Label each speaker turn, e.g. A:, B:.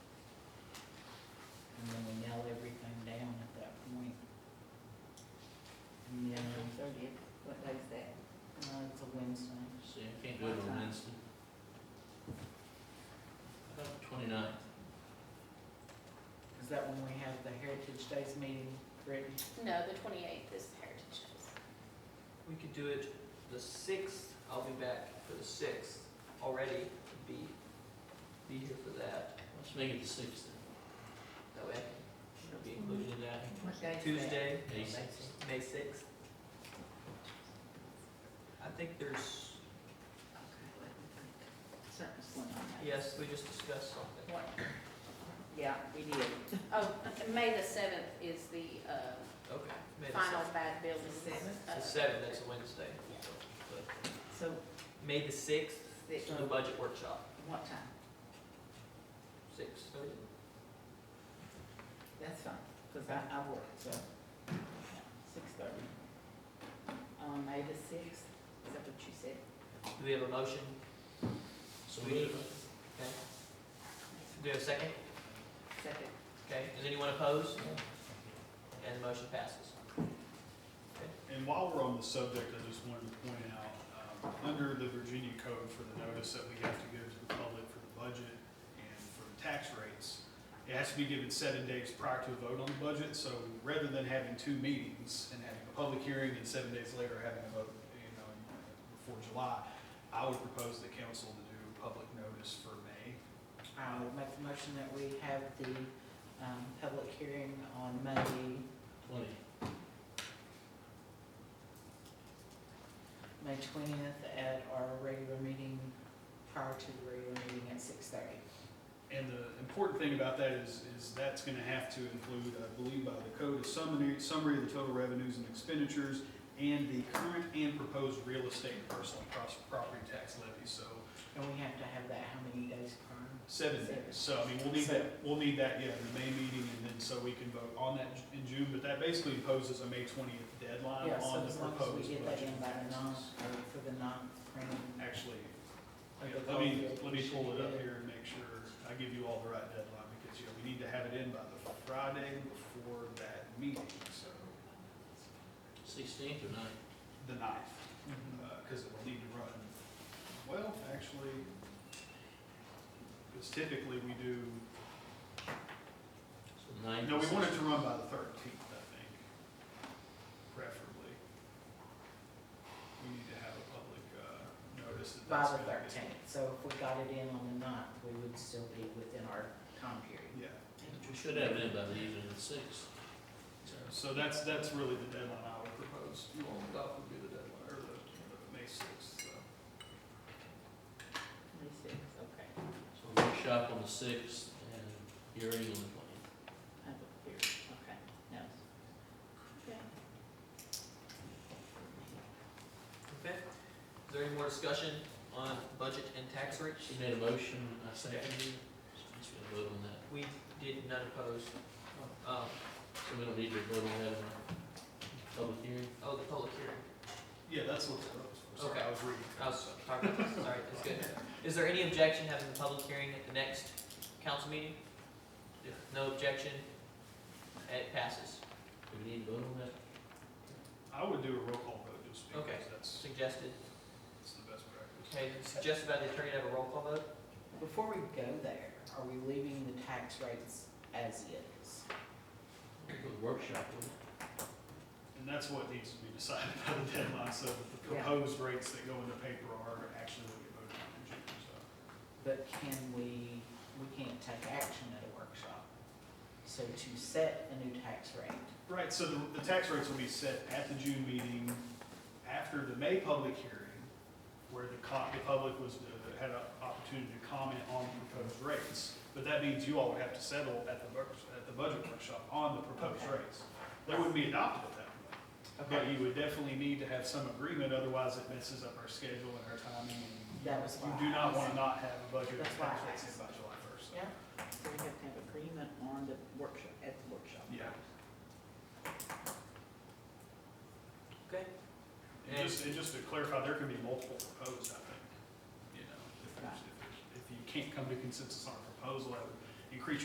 A: Uh, that when we have the Heritage Days meeting, Brittany?
B: No, the twenty-eighth is Heritage Days.
C: We could do it the sixth, I'll be back for the sixth already, be, be here for that.
D: Let's make it the sixth
C: That way I can be included in that.
E: What day is that?
C: Tuesday,
D: May sixth.
C: May sixth. I think there's,
E: Okay, let me think. Something's going on there.
C: yes, we just discussed something.
E: What? Yeah, we did.
B: Oh, May the seventh is the, uh,
C: Okay. May the
B: final
C: sixth.
B: bad uh, building.
E: Seventh?
C: The seventh, that's a Wednesday. so, but
E: So,
C: May the sixth,
E: Sixth.
C: the budget workshop,
E: what time?
C: six thirty.
E: That's fine, because I, I work, so, six thirty. On May the sixth, is that what you said?
C: Do we have a motion?
D: So we need,
C: Okay. Do we have a second?
E: Second,
C: Okay, does anyone oppose? And the motion passes.
F: And while we're on the subject, I just wanted to point out, um, under the Virginia code for the notice that we have to give to the public for the budget and for the tax rates, it has to be given seven days prior to a vote on the budget, so rather than having two meetings and having a public hearing and seven days later having a vote, you know, before July, I would propose the council to do public notice for May.
A: I would make the motion that we have the um, public hearing on May,
D: twenty.
A: May 20th at our regular meeting, prior to the regular meeting at 6:30.
F: And the important thing about that is, is that's gonna have to include, I believe by the code, a summary, summary of the total revenues and expenditures and the current and proposed real estate and personal pros- property tax levy, so
A: And we have to have that how many days prior?
F: seven days. So, I mean, we'll need that, we'll need that, yeah, in the May meeting, and then so we can vote on that in June, but that basically imposes a May twentieth deadline
A: Yeah, so
F: on the
A: as long as we
F: proposed
A: get that in
F: budget.
A: by the ninth, or for the ninth printing.
F: Actually,
A: of
F: yeah,
A: the
F: let me,
A: budget, we
F: let me
A: should
F: pull it
A: be
F: up
A: good.
F: here and make sure I give you all the right deadline, because, you know, we need to have it in by the Friday before that meeting, so
D: Sixteenth or ninth?
F: the ninth,
A: Mhm.
F: because it will need to run, well, actually, because typically we do,
D: So ninth.
F: no, we want it to run by the thirteenth, I think, preferably. We need to have a public uh, notice that that's.
A: By the
F: gonna be-
A: 13th, so if we got it in on the ninth, we would still be within our time period.
F: Yeah.
D: We should have it in by the evening of the sixth.
F: So that's, that's really the deadline I would propose. You all adopt would be the deadline, or the, the May sixth, so.
E: May sixth, okay.
D: So workshop on the sixth and hearing on the twentieth.
E: I have a theory, okay, no. Okay.
C: Okay. Is there any more discussion on budget and tax rates?
D: She made a motion, I seconded it. So we should vote on that.
C: We did not oppose. Um,
D: So we don't need to vote on that in our public hearing.
C: Oh, the public hearing.
F: Yeah, that's what I was, I'm sorry,
C: Okay.
F: I was reading.
C: I was talking about this, sorry, that's good. Is there any objection having the public hearing at the next council meeting? If No objection, it passes.
D: Do we need to vote on that?
F: I would do a roll call vote just because
C: Okay.
F: that's,
C: Suggested,
F: that's the best practice.
C: okay, suggested by the attorney to have a roll call vote?
A: Before we go there, are we leaving the tax rates as is?
D: We'll go to Workshop, wouldn't it?
F: And that's what needs to be decided by the deadline, so that the
A: Yeah.
F: proposed rates that go in the paper are actually what you voted on in June, so.
A: But can we, we can't take action at a workshop. So to set a new tax rate,
F: Right, so the, the tax rates will be set at the June meeting, after the May public hearing, where the co, the public was, uh, had an opportunity to comment on the proposed rates. But that means you all would have to settle at the, work- at the budget workshop on the proposed
A: Okay.
F: rates. They wouldn't be adopted at that point. But you would definitely need to have some agreement, otherwise it messes up our schedule and our timing. and
A: That was why
F: You do
A: I
F: not want
A: asked.
F: to not have a budget
A: That's why I
F: tax rates in
A: asked.
F: by July first.
A: yeah?
E: So we have to have agreement on the workshop, at the workshop.
F: Yeah.
C: Okay.
F: And just, and just to clarify, there can be multiple proposed, I think, you know, if, there's- if, there's- if you can't come to consensus on a proposal, that would increase